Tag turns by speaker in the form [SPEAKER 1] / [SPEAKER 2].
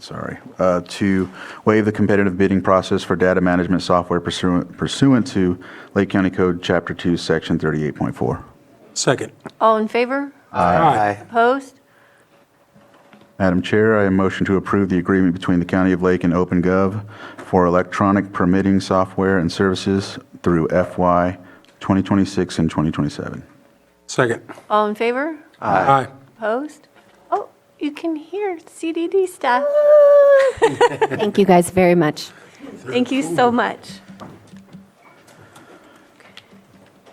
[SPEAKER 1] sorry, uh, to waive the competitive bidding process for data management software pursuant pursuant to Lake County Code, Chapter 2, Section 38.4.
[SPEAKER 2] Second.
[SPEAKER 3] All in favor?
[SPEAKER 2] Aye.
[SPEAKER 3] Opposed?
[SPEAKER 1] Madam Chair, I motion to approve the agreement between the County of Lake and OpenGov for electronic permitting software and services through FY 2026 and 2027.
[SPEAKER 2] Second.
[SPEAKER 3] All in favor?
[SPEAKER 2] Aye.
[SPEAKER 3] Opposed? Oh, you can hear CDD staff.
[SPEAKER 4] Thank you guys very much.
[SPEAKER 3] Thank you so much.